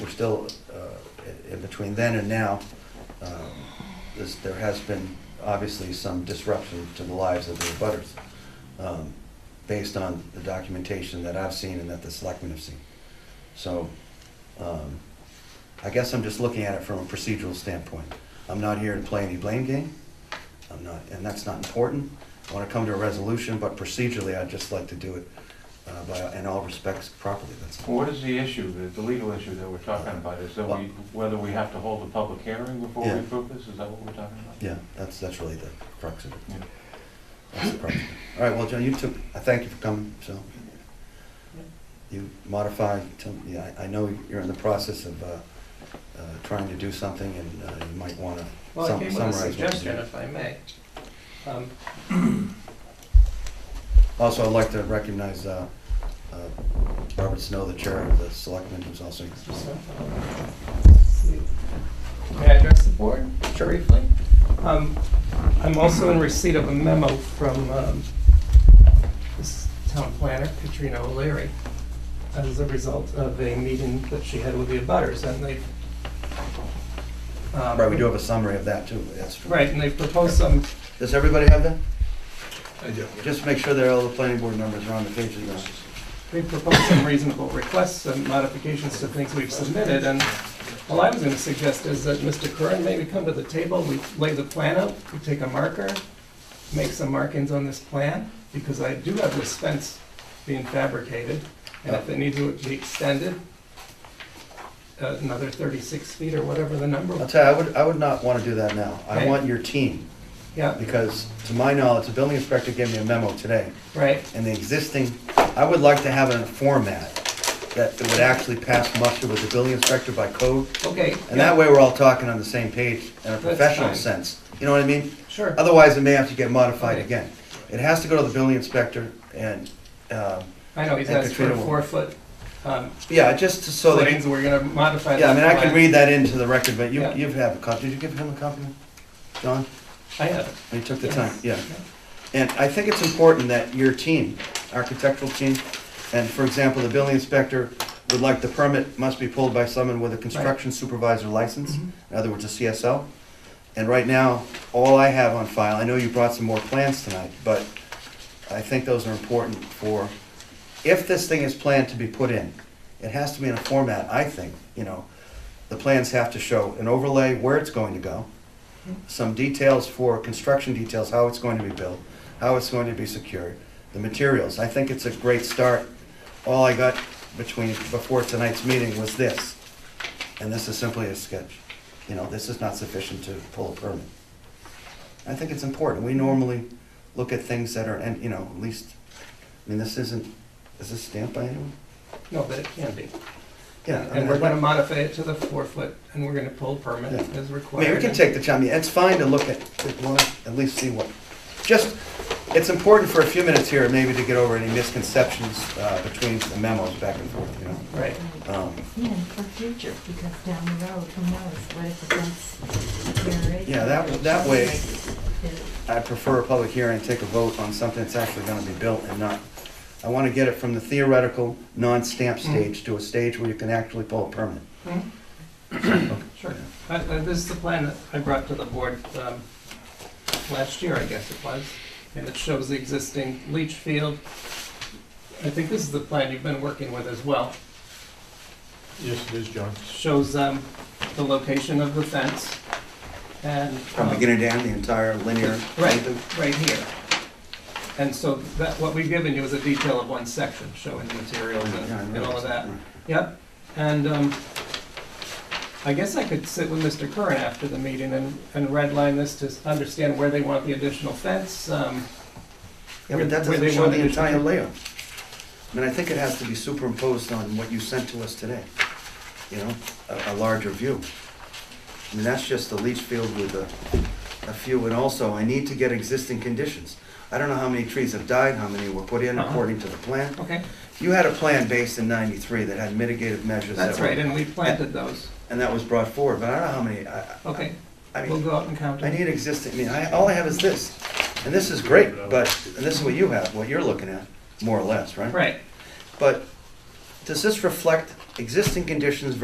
still, uh, in- in between then and now, um, this- there has been obviously some disruption to the lives of the abutters, um, based on the documentation that I've seen and that the selectmen have seen. So um, I guess I'm just looking at it from a procedural standpoint. I'm not here to play any blame game. I'm not, and that's not important. I want to come to a resolution, but procedurally, I'd just like to do it uh, by, in all respects properly, that's all. Well, What is the issue, the- the legal issue that we're talking about? Is that we, whether we have to hold a public hearing before we Yeah. approve this? Is that what we're talking about? Yeah, that's, that's really the crux of it. Yeah. That's the crux of it. All right, well, John, you took, I thank you for coming, so. You modify, tell me- yeah, I I know you're in the process of uh, uh, trying to do something, and uh, you might want to Well, I came summarize. with a what you suggestion, did. if I may. Um, Also, I'd like to recognize uh, uh, Robert Snow, the chair of the selectmen, who's also. just, uh, May I address the board Sure. briefly? Um, I'm also in receipt of a memo from um, this town planner, Katrina O'Leary, as a result of a meeting that she had with the abutters, and they... Right, we do have a summary of that, too, that's true. Right, and they proposed some, Does everybody have that? I do. Just make sure that all the planning board numbers are on the page. that you're- they proposed some reasonable requests and modifications to things we've submitted, and All I was gonna suggest is that Mr. Curran maybe come to the table, we lay the plan out, we take a marker, make some markings on this plan, because I do have this fence being fabricated, and if it needs to be extended, uh, another thirty-six feet or whatever the I'll number, tell you, I would, I would not want to do that now. I Okay. want your team, yeah, because to my knowledge, the building inspector gave me a memo today, right, and the existing, I would like to have it in a format that it would actually pass muster with the building inspector by code, okay. and that way we're all talking on the same page in a That's professional fine. sense. You know what I mean? Sure, Otherwise, it may have to get modified Okay. again. It has to go to the building inspector, and, um, I know, he's And asked for Katrina will- four-foot, um, yeah, just to- so footings, that, we're gonna modify this yeah, I mean, I can plan. read that into the record, but you, Yeah. you've had a copy. Did you give him a copy, John? I have it. You took the Yes. time, yeah. And I think it's important that your team, architectural team, and for example, the building inspector would like the permit must be pulled by someone with a construction supervisor license, Mhm. in other words, a CSL. And right now, all I have on file, I know you brought some more plans tonight, but I think those are important for, if this thing is planned to be put in, it has to be in a format, I think, you know, the plans have to show an overlay, where it's going to go, some details for, construction details, how it's going to be built, how it's going to be secured, the materials. I think it's a great start. All I got between, before tonight's meeting was this, and this is simply a sketch. You know, this is not sufficient to pull a permit. I think it's important. We normally look at things that are, and, you know, at least, I mean, this isn't, is this stamped by anyone? No, but it can be. Yeah. I And mean, we're I'd gonna like- modify it to the four foot, and we're gonna pull permit Yeah. as I required. mean, we can take the time, it's fine to look at, to want- at least see what, just, it's important for a few minutes here, maybe to get over any misconceptions uh, between the memos back and forth, you know? Right, Um, Yeah, for future, because down the road, who knows, what if the fence deteriorates? Yeah, that- that way- It- I prefer a public hearing, take a vote on something that's actually gonna be built and not, I wanna get it from the theoretical, non-stamp stage to a stage where you can actually pull a permit. sure. I- I- Uh, This is the plan that I brought to the board um, last year, I guess it was, and it shows the existing leach field. I think this is the plan you've been working with as well. Yes, it is, John. Shows um, the location of the fence and. From um, beginning to end, the entire linear. Right, right here. And so that, what we've given you is a detail of one section showing the materials Yeah, I and and all of noticed. that. Yep, and um, I guess I could sit with Mr. Curran after the meeting and, and redline this to understand where they want the additional fence. um, Yeah, but that where doesn't they show want the additional- entire layout. I mean, I think it has to be superimposed on what you sent to us today, you know, a, a larger view. I mean, that's just the leach field with a, a few, and also, I need to get existing conditions. I don't know how many trees have died, how many were put in Uh-huh. according to the plan. Okay, You had a plan based in ninety-three that had mitigative measures that that's right, were, and we planted those. and that was brought forward, but I don't know how many, I, I- Okay, I we'll mean, go out and count I it. need existing, I mean, I, all I have is this, and this is great, but, and this is what you have, what you're looking at, more or less, right? Right. But does this reflect existing conditions